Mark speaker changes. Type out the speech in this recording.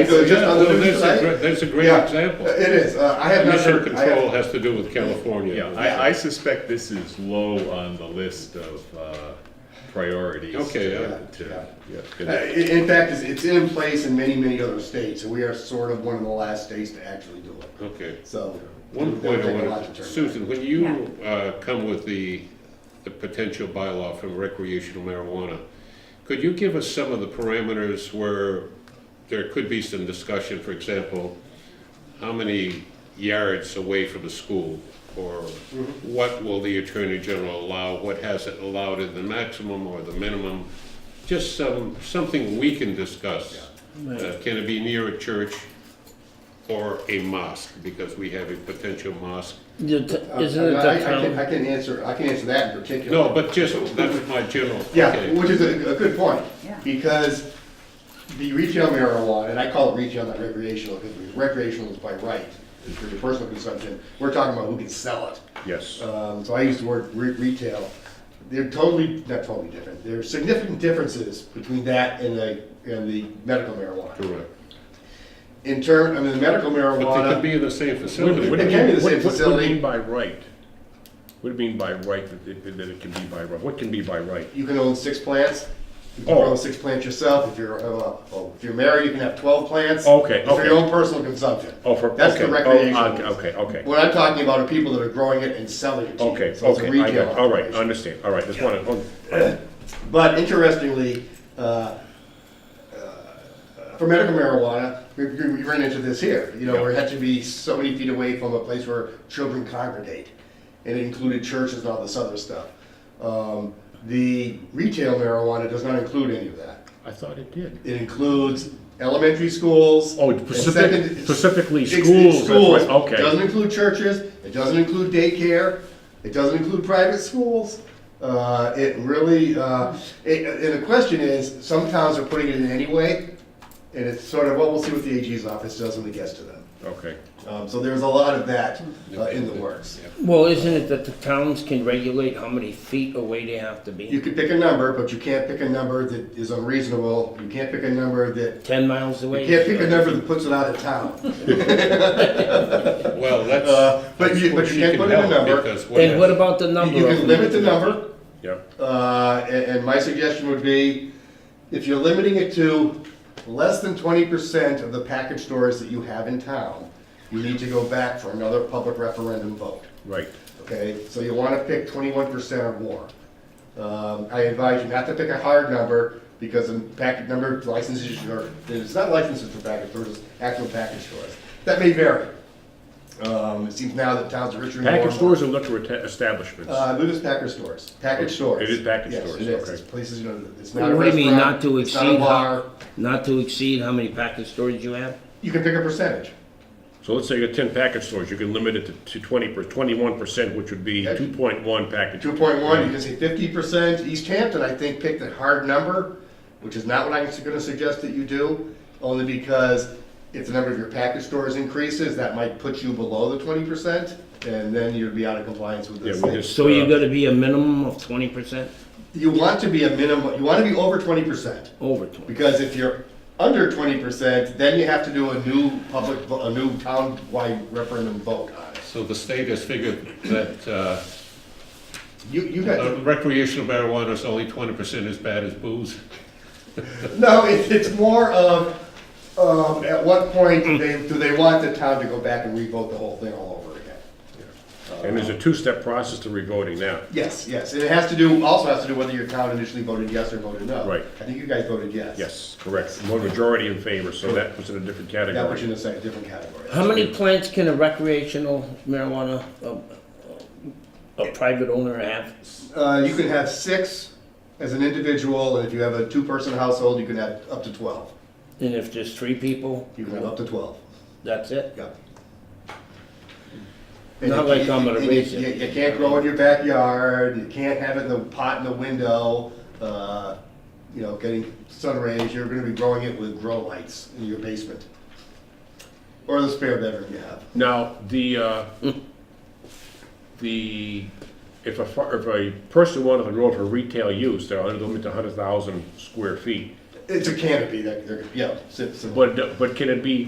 Speaker 1: It goes just
Speaker 2: Yeah,
Speaker 1: under
Speaker 2: well,
Speaker 1: the
Speaker 2: That's a,
Speaker 1: site.
Speaker 2: great- that's a great
Speaker 1: Yeah,
Speaker 2: example.
Speaker 1: It is, Uh, I have not
Speaker 2: Mission
Speaker 1: heard. I have-
Speaker 2: control has to do with California.
Speaker 3: Yeah, I, I suspect this is low on the list of uh, priorities.
Speaker 2: Okay,
Speaker 3: to-
Speaker 2: yeah,
Speaker 3: to-
Speaker 1: yeah.
Speaker 3: yeah,
Speaker 1: Uh, i-
Speaker 3: good.
Speaker 1: In fact, it's- it's in place in many, many other states, and we are sort of one of the last states to actually do it.
Speaker 2: Okay.
Speaker 1: So.
Speaker 2: One
Speaker 1: it would
Speaker 2: point I
Speaker 1: take a lot
Speaker 2: want
Speaker 1: to
Speaker 2: to,
Speaker 1: turn
Speaker 2: Susan, when you uh, come with the, the potential bylaw from recreational marijuana, could you give us some of the parameters where there could be some discussion, for example, how many yards away from a school? Or what will the Attorney General allow, what has it allowed in the maximum or the minimum? Just some, something we can discuss. Uh, Can it be near a church or a mosque? Because we have a potential mosque.
Speaker 4: The t-
Speaker 1: back. Uh,
Speaker 4: Isn't it
Speaker 1: I- I
Speaker 4: the
Speaker 1: can- I
Speaker 4: town?
Speaker 1: can answer, I can answer that in particular.
Speaker 2: No, but just, that's my general.
Speaker 1: Yeah,
Speaker 2: okay.
Speaker 1: which is a, a good point.
Speaker 5: Yeah.
Speaker 1: Because the retail marijuana, and I call it retail, not recreational, because recreational is by right, it's for your personal consumption. We're talking about who can sell it.
Speaker 3: Yes.
Speaker 1: Um, so I use the word re- retail. They're totally, not totally different. There are significant differences between that and the, and the medical marijuana.
Speaker 2: Correct.
Speaker 1: In term, I mean, the medical
Speaker 2: But they could
Speaker 1: marijuana,
Speaker 2: be in the same facility.
Speaker 1: It can be the same facility.
Speaker 6: by right? What do you mean by right, that it, that it can be by right? What can be by right?
Speaker 1: you can own six plants. You can
Speaker 6: Oh.
Speaker 1: grow six plants yourself. If you're, uh, well, if you're married, you can have twelve plants.
Speaker 6: Okay,
Speaker 1: It's For
Speaker 6: okay.
Speaker 1: your own personal consumption.
Speaker 6: Oh, for, okay.
Speaker 1: That's the
Speaker 6: oh,
Speaker 1: recreational.
Speaker 6: okay, Okay, okay,
Speaker 1: What I'm talking about are people that are growing it and selling it to you.
Speaker 6: okay,
Speaker 1: So it's a
Speaker 6: okay, I
Speaker 1: retail
Speaker 6: got, all right, I
Speaker 1: operation.
Speaker 6: understand, all right, just wanna, oh,
Speaker 1: But interestingly, uh, uh, for medical marijuana, we, we we ran into this here, you know, where it had to be so many feet away from a place where children congregate. And it included churches and all this other stuff. Um, the retail marijuana does not include any of that.
Speaker 6: I thought it did.
Speaker 1: It includes elementary schools.
Speaker 6: Oh,
Speaker 1: and
Speaker 6: specific-
Speaker 1: second-
Speaker 6: specifically
Speaker 1: Ex- ex-
Speaker 6: schools, that's
Speaker 1: Schools,
Speaker 6: right, okay.
Speaker 1: doesn't include churches, it doesn't include daycare, it doesn't include private schools. Uh, it really, uh, it, and the question is, some towns are putting it in anyway, and it's sort of, well, we'll see what the AG's office does when it gets to them.
Speaker 6: Okay,
Speaker 1: Um, so there's a lot of that, uh, in the works.
Speaker 4: Well, isn't it that the towns can regulate how many feet away they have to
Speaker 1: You
Speaker 4: be?
Speaker 1: could pick a number, but you can't pick a number that is unreasonable, you can't pick a number that,
Speaker 4: Ten miles away?
Speaker 1: you can't pick a number that puts it out of town.
Speaker 2: Well, that's.
Speaker 1: Uh, but
Speaker 2: that's
Speaker 1: you-
Speaker 2: where
Speaker 1: but you
Speaker 2: she
Speaker 1: can't
Speaker 2: can
Speaker 1: put in a
Speaker 2: help,
Speaker 1: number.
Speaker 2: because
Speaker 4: And what
Speaker 2: if-
Speaker 4: about the number?
Speaker 1: You can
Speaker 4: of them?
Speaker 1: limit the number,
Speaker 6: yeah,
Speaker 1: uh, and, and my suggestion would be, if you're limiting it to less than twenty percent of the package stores that you have in town, you need to go back for another public referendum vote,
Speaker 6: right,
Speaker 1: okay? So you wanna pick twenty-one percent or more. Um, I advise you not to pick a hard number, because the packet number of licenses, or, it's not licenses for package stores, it's actual package stores. That may vary. Um, it seems now that towns are richer and more.
Speaker 6: package stores or liquor eta- establishments?
Speaker 1: Uh, I believe it's package stores, package stores.
Speaker 6: Oh, It is package
Speaker 1: Yes,
Speaker 6: stores,
Speaker 1: it is.
Speaker 6: okay.
Speaker 1: It's places, you know, it's not a
Speaker 4: What do you mean, not
Speaker 1: restaurant,
Speaker 4: to
Speaker 1: it's not a
Speaker 4: exceed,
Speaker 1: bar.
Speaker 4: how- not to exceed how many package stores you have?
Speaker 1: You can pick a percentage.
Speaker 6: So let's say you got ten package stores, you can limit it to- to twenty per, twenty-one percent, which would be
Speaker 1: Yeah.
Speaker 6: two point one package.
Speaker 1: Two point
Speaker 6: Hmm.
Speaker 1: one, you can say fifty percent. East Hampton, I think, picked a hard number, which is not what I'm gonna suggest that you do, only because if the number of your package stores increases, that might put you below the twenty percent, and then you'd be out of compliance with
Speaker 6: Yeah,
Speaker 1: this
Speaker 6: we
Speaker 1: thing.
Speaker 6: just,
Speaker 4: So you
Speaker 6: uh,
Speaker 4: gotta be a minimum of twenty percent,
Speaker 1: You want to be a minimum, you wanna be over twenty percent.
Speaker 4: over twenty?
Speaker 1: Because if you're under twenty percent, then you have to do a new public, vo- a new town-wide referendum vote on it.
Speaker 2: So the state has figured that uh,
Speaker 1: You, you got,
Speaker 2: uh, recreational marijuana is only twenty percent as bad as booze.
Speaker 1: no, it, it's more of, um, at what point do they, do they want the town to go back and revote the whole thing all over again?
Speaker 6: and there's a two-step process to revoting now.
Speaker 1: Yes, yes, and it has to do, also has to do whether your town initially voted yes or voted no.
Speaker 6: Right.
Speaker 1: I think you guys voted yes.
Speaker 6: Yes, correct, one majority in favor, so that was in a different category.
Speaker 1: That puts you in a se- different category.
Speaker 4: How many plants can a recreational marijuana, uh, a private owner have?
Speaker 1: Uh, you can have six as an individual, and if you have a two-person household, you can have up to twelve.
Speaker 4: And if there's three people,
Speaker 1: You can have up to twelve.
Speaker 4: that's it?
Speaker 1: Yeah.
Speaker 4: Not like I'm gonna
Speaker 1: And you-
Speaker 4: raise
Speaker 1: you-
Speaker 4: it.
Speaker 1: You can't grow in your backyard, you can't have it in the pot in the window, uh, you know, getting sun rays, you're gonna be growing it with grow lights in your basement. Or the spare bedroom you have.
Speaker 6: Now, the, uh, the, if a, fa- if a person wanted to grow it for retail use, they're under the limit to hundred thousand square feet.
Speaker 1: It's a canopy that, they're- yeah, sits.
Speaker 6: But, but can it be